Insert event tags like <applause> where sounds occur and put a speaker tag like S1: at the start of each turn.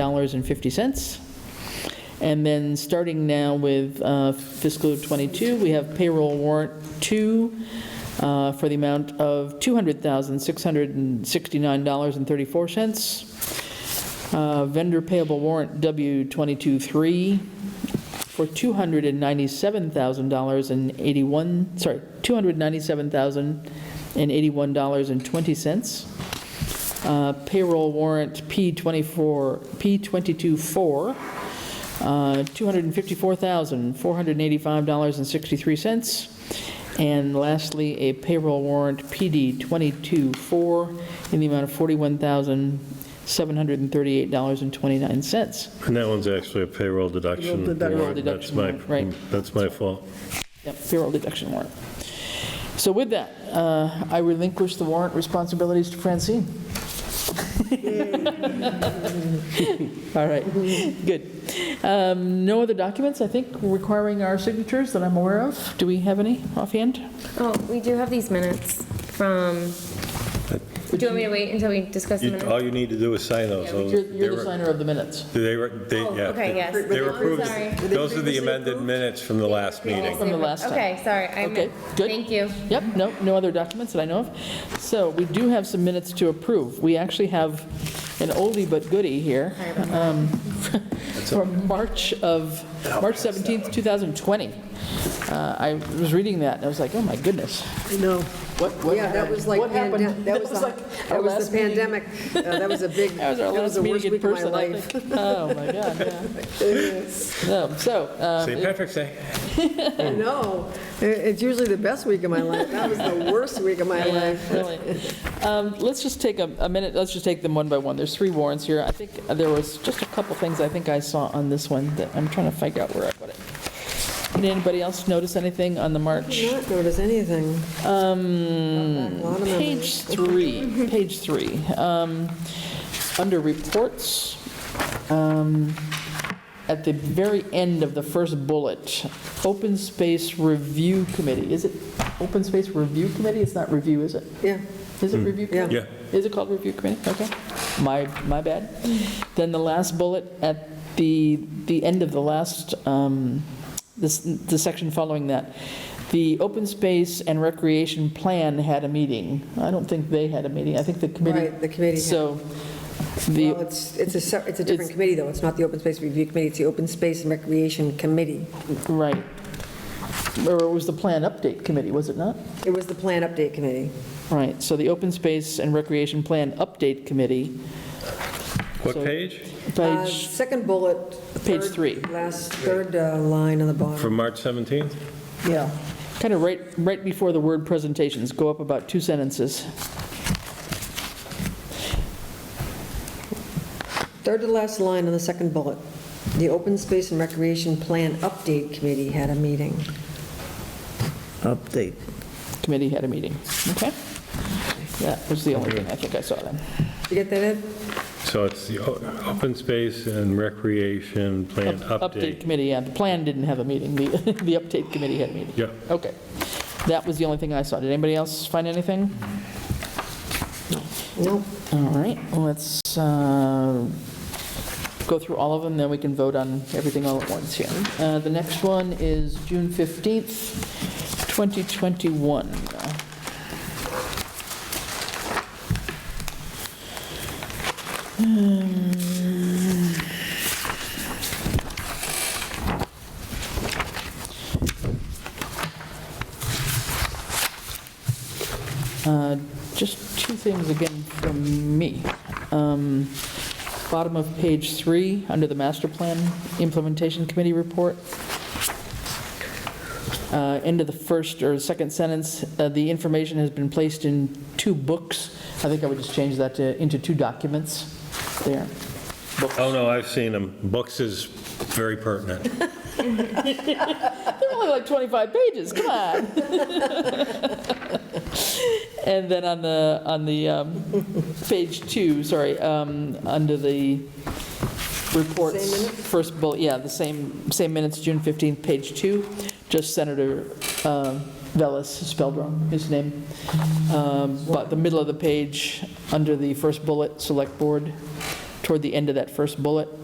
S1: dollars and fifty cents. And then, starting now with uh, fiscal '22, we have payroll warrant two uh, for the amount of $200,669.34. Uh, Vendor payable warrant W-22-3 for $297,081, sorry, $297,081.20. Uh, payroll warrant P24, P224, uh, $254,485.63. And lastly, a payroll warrant PD224 in the amount of $41,738.29.
S2: And that one's actually a payroll deduction.
S1: Payroll deduction.
S2: warrant. That's
S1: Payroll
S2: my,
S1: deduction, right.
S2: that's my fault.
S1: Yep, payroll deduction warrant. So with that, uh, I relinquish the warrant responsibilities to Francine. <laughs> All right, good. Um, No other documents, I think, requiring our signatures that I'm aware of? Do we have any offhand?
S3: Oh, we do have these minutes from, do you want me to wait until we discuss the
S2: You-
S3: minutes?
S2: All you need to do is sign those. Those-
S1: You're you're
S2: they
S1: the
S2: were-
S1: signer of the minutes.
S2: They were, they,
S3: Oh,
S2: yeah.
S3: okay,
S2: they-
S3: yes.
S2: They were
S3: I'm
S2: approved.
S3: sorry.
S2: Those are the amended minutes from the last meeting.
S1: From the last time.
S3: Okay, sorry. I
S1: Okay,
S3: meant-
S1: good.
S3: Thank you.
S1: Yep, no, no other documents that I know of. So we do have some minutes to approve. We actually have an oldie but goodie here um, from March of, March 17th, 2020. Uh, I was reading that, and I was like, oh my goodness,
S4: No.
S1: what, what
S4: Yeah, that was like,
S1: what happened?
S4: pande- that was,
S1: like
S4: the-
S1: our
S4: that was
S1: last
S4: the
S1: meeting.
S4: pandemic. Uh,
S1: <laughs>
S4: That was a big,
S1: That was our
S4: that was
S1: last
S4: the worst
S1: meeting in
S4: week of my
S1: person, I
S4: life.
S1: think. Oh, my God,
S4: <laughs>
S1: yeah. No, So, uh,
S2: St. Patrick's Day.
S4: No, it- it's usually the best week of my life. That was the worst week of my
S1: Yeah,
S4: life.
S1: really. Um, Let's just take a a minute, let's just take them one by one. There's three warrants here. I think there was just a couple things I think I saw on this one that I'm trying to figure out where I put it. Did anybody else notice anything on the March?
S4: Did not notice anything. Um.
S1: Page three, page three. Um, Under reports, um, at the very end of the first bullet, Open Space Review Committee. Is it Open Space Review Committee? It's not review, is it?
S4: Yeah,
S1: Is it review
S4: yeah.
S1: committee?
S2: Yeah.
S1: Is it called review committee? Okay. My, my bad. Then the last bullet at the, the end of the last, um, this, the section following that. The open space and recreation plan had a meeting. I don't think they had a meeting. I think the committee.
S4: Right, the committee had-
S1: So
S4: well,
S1: the,
S4: it's, it's a, se- it's a
S1: It's-
S4: different committee, though. It's not the Open Space Review Committee, it's the Open Space and Recreation Committee.
S1: right. Or it was the plan update committee, was it not?
S4: It was the Plan Update Committee.
S1: Right. So the open space and recreation plan update committee,
S2: What
S1: So-
S2: page?
S4: Uh,
S1: page
S4: Second bullet.
S1: Page
S4: third-
S1: three.
S4: Last, third uh, line on the bottom.
S2: From March 17th?
S4: Yeah.
S1: Kind of right, right before the word presentations, go up about two sentences.
S4: Third to last line on the second bullet. The Open Space and Recreation Plan Update Committee had a meeting.
S5: update.
S1: Committee had a meeting, okay? That was the only thing I think I saw then.
S4: You get that, Ed?
S2: So it's the o- Open Space and Recreation Plan
S1: Update
S2: Update.
S1: committee, yeah, the plan didn't have a meeting, the, <laughs> the update committee had a meeting.
S2: Yeah.
S1: Okay, that was the only thing I saw. Did anybody else find anything?
S4: No.
S1: All right, let's uh, go through all of them, then we can vote on everything all at once here. Uh, The next one is June 15th, 2021. Uh, Just two things again from me. Um, Bottom of page three, under the master plan implementation committee report. Uh, End of the first or second sentence, uh, the information has been placed in two books. I think I would just change that to, into two documents there. Books.
S2: Oh, no, I've seen them. Books is very pertinent.
S1: They're only like 25 pages, come on. <laughs> And then on the, on the, um, page two, sorry, um, under the reports, first bullet, yeah, the same, same minutes, June 15th, page two, just Senator uh, Velas, spelled wrong, his name. Um, But the middle of the page, under the first bullet, Select Board, toward the end of that first bullet.